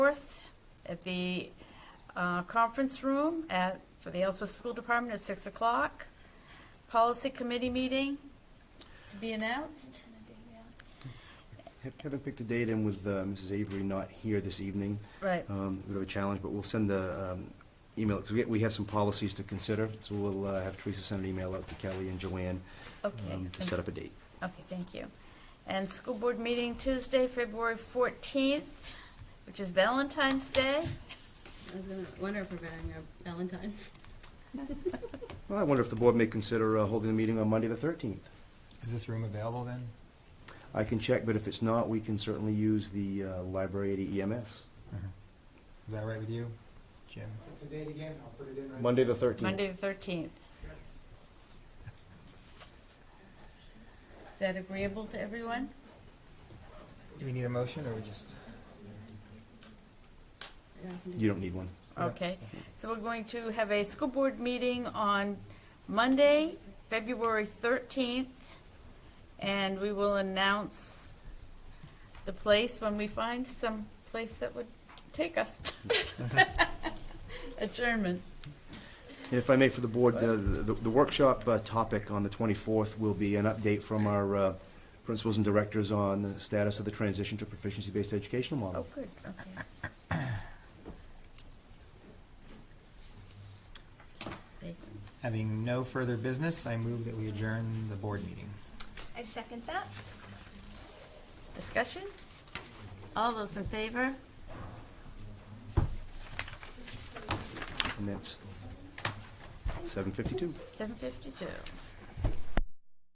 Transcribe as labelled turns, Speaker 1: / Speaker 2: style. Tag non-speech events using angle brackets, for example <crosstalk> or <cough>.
Speaker 1: 4th at the uh, conference room at, for the Ellsworth School Department at 6 o'clock. Policy Committee meeting to be announced.
Speaker 2: Kevin picked a date in with uh, Mrs. Avery not here this evening.
Speaker 1: Right,
Speaker 2: Um, A bit of a challenge, but we'll send the um, email, because we have some policies to consider, so we'll uh, have Teresa send an email out to Kelly and Joanne
Speaker 1: okay.
Speaker 2: um, to set up a date.
Speaker 1: Okay, thank you. And school board meeting Tuesday, February 14th, which is Valentine's Day.
Speaker 3: I was gonna wonder if we're having our Valentine's.
Speaker 2: Well, I wonder if the board may consider uh, holding the meeting on Monday, the 13th.
Speaker 4: Is this room available then?
Speaker 2: I can check, but if it's not, we can certainly use the uh, library at EMS.
Speaker 4: Is that right with you, Jim?
Speaker 5: What's the date again? I'll put it in right.
Speaker 2: Monday, the 13th.
Speaker 1: Monday, the 13th. Is that agreeable to everyone?
Speaker 4: Do we need a motion or we just?
Speaker 3: Yeah, I can do
Speaker 2: You don't need one.
Speaker 4: Yeah.
Speaker 1: Okay, so we're going to have a school board meeting on Monday, February 13th, and we will announce the place when we find some place that would take us. <laughs> Adjournment.
Speaker 2: If I may, for the board, uh, the the workshop uh, topic on the 24th will be an update from our uh, principals and directors on the status of the transition to proficiency-based educational
Speaker 1: Oh,
Speaker 2: model.
Speaker 1: good, okay. Okay.
Speaker 4: Having no further business, I move that we adjourn the board meeting.
Speaker 6: I second that.
Speaker 1: Discussion? All those in favor?
Speaker 2: And that's 7:52.
Speaker 1: 7:52.